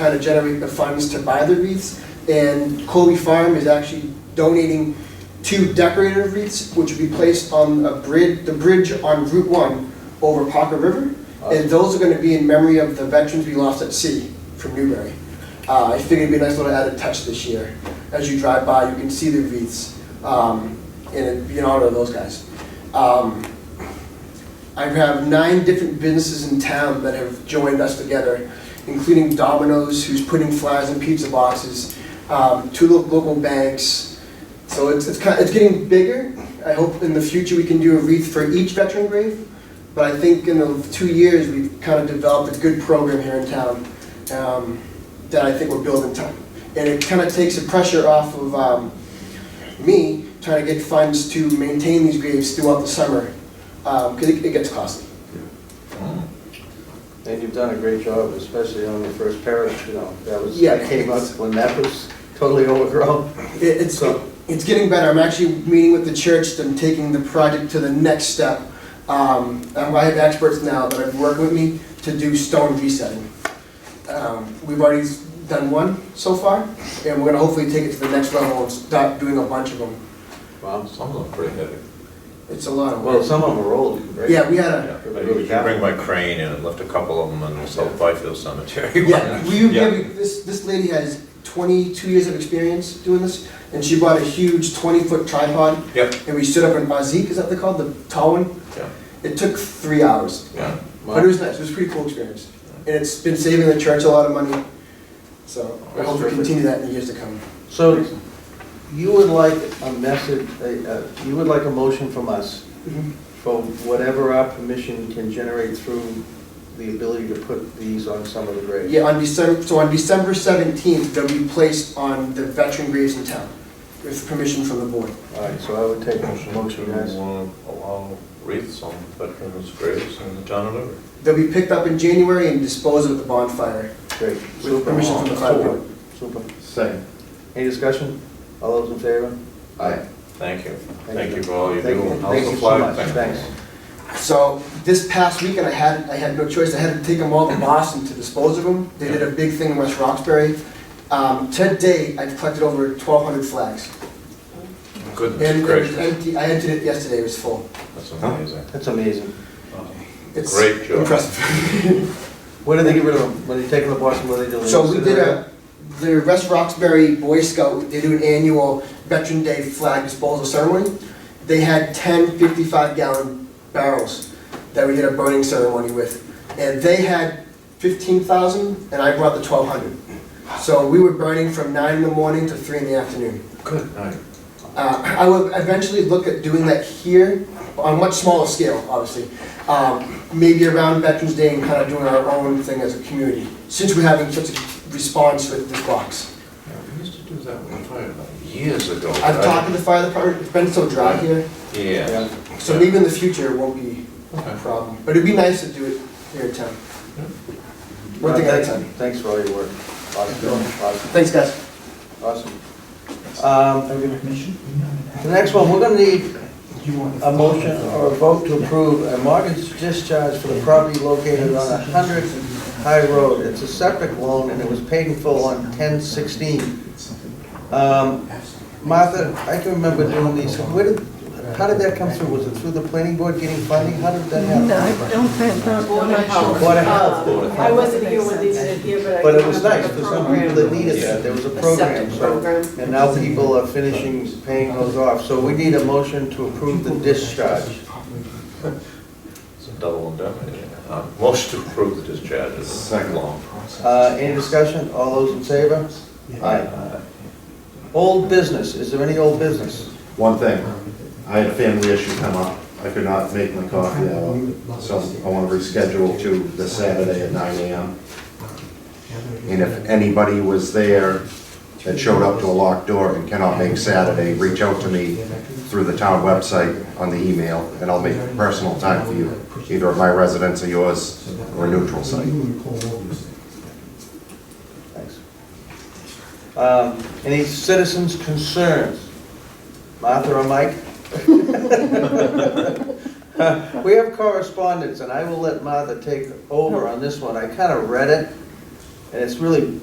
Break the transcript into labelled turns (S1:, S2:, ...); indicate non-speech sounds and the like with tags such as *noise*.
S1: how to generate the funds to buy the wreaths. And Colby Farm is actually donating two decorative wreaths, which will be placed on a bridge, the bridge on Route One over Parker River. And those are gonna be in memory of the veterans we lost at sea from Newbury. Uh, I figured it'd be a nice little added touch this year. As you drive by, you can see the wreaths, um, and it'd be in honor of those guys. Um, I have nine different businesses in town that have joined us together, including Domino's, who's putting flyers in pizza boxes, um, two lo- local banks. So it's, it's kind, it's getting bigger. I hope in the future we can do a wreath for each veteran grave. But I think in the two years, we've kind of developed a good program here in town, um, that I think we're building time. And it kind of takes the pressure off of, um, me trying to get funds to maintain these graves throughout the summer, because Um, it it gets costly.
S2: And you've done a great job, especially on the first parish, you know, that was,
S1: Yeah.
S2: that came up when that was totally overgrown. *laughs*
S1: It- It's, it's getting better, I'm actually meeting with the church, I'm taking the project to the next step. Um, um, I have experts now that have worked with me to do stone resetting. Um, We've already done one so far, and we're gonna hopefully take it to the next level and start doing a bunch of them.
S2: Wow.
S3: Some of them are pretty heavy.
S1: It's a lot of
S2: Well,
S1: work.
S2: some of them are old, right?
S1: Yeah, we had a,
S3: *laughs* I usually bring my crane and I left a couple of them in the South Byfield
S2: *laughs*
S3: Cemetery.
S1: Yeah, we, we
S3: Yeah.
S1: have- this, this lady has twenty-two years of experience doing this, and she bought a huge twenty-foot tripod,
S3: Yep,
S1: and we stood up in Bazik, is that they called, the tall one?
S3: yeah,
S1: It took three hours,
S3: yeah.
S1: but it was nice, it was a pretty cool experience. And it's been saving the church a lot of money, so I hope we continue that in the years to come.
S2: So you would like a message, a- a- you would like a motion from us for whatever our permission can generate through the ability to put these on some of the graves?
S1: Yeah, on December, so on December seventeenth, they'll be placed on the veteran graves in town, with permission from the board.
S2: All right, so I would take a motion, guys.
S3: allow wreaths on veterans' graves in the town of Liberty.
S1: They'll be picked up in January and disposed of at the bonfire.
S2: Great.
S1: With permission from the fire board.
S2: Super.
S4: Second.
S2: Any discussion? All those in favor?
S4: Aye.
S3: Thank you. Thank you for all you
S2: Thank
S3: do.
S2: you.
S3: and
S2: Thank
S3: also
S2: you so
S3: flag-
S2: much.
S3: thank you.
S2: Thanks.
S1: So this past weekend, I had, I had no choice. I had to take them all to Boston to dispose of them. They did a big thing in West Roxbury. Um, to date, I've collected over twelve hundred flags.
S3: Goodness
S1: And it was
S3: gracious,
S1: empty, I entered it yesterday, it was full.
S3: that's amazing.
S2: That's amazing.
S1: It's
S3: Great job.
S1: Impressive. *laughs*
S2: What do they get rid of them? When they take them to Boston, what do they do?
S1: So we did a, the West Roxbury Boy Scout, they do an annual Veteran Day flag disposal ceremony. They had 10 55 gallon barrels that we did a burning ceremony with. And they had fifteen thousand and I brought the twelve hundred. So we were burning from nine in the morning to three in the afternoon.
S3: Good night.
S1: Uh, I would eventually look at doing that here on a much smaller scale, obviously. Um, maybe around Veterans Day and kind of doing our own thing as a community, since we're having such a response with this box.
S3: Yeah, We used to do that with the fire department years ago.
S1: I've talked to the fire department, it's been so dry here,
S3: Yeah.
S1: so maybe in the future it won't be a
S3: Okay.
S1: problem. But it'd be nice to do it here in town. One thing at a time.
S2: Uh, Thanks for all your work. Awesome, awesome,
S1: Thanks, guys.
S2: awesome. Um, The next one, we're gonna need a motion or a vote to approve a mortgage discharge for the property located on 100 High Road. It's a septic loan and it was paid in full on 10/16. Um, Martha, I can remember doing these, where did, how did that come through? Was it through the planning board getting funding? How did that happen?
S5: No, I don't think,
S6: Board of Health.
S2: Board of Health.
S6: Uh, I wasn't here when they did it here, but I.
S2: But it was nice,
S6: remember
S2: for
S6: the
S2: some people that
S6: program.
S2: needed that, there was a
S6: A
S2: program,
S6: septic
S2: so,
S6: program.
S2: and now people are finishing paying those off, so we need a motion to approve the discharge.
S3: It's a double indemnity. Uh, Motion to approve the discharge is
S4: Second.
S3: long.
S2: Uh, any discussion, all those in favor? Aye. Old business, is there any old business?
S4: One thing, I had a family issue come up. I could not make my coffee hour, so I want to reschedule to the Saturday at nine AM. And if anybody was there that showed up to a locked door and cannot make Saturday, reach out to me through the town website on the email, and I'll make personal time for you, either at my residence or yours, or a neutral site.
S2: Thanks. Um, any citizens' concerns? Martha or Mike? *laughs* We have correspondence, and I will let Martha take over on this one. I kind of read it, and it's really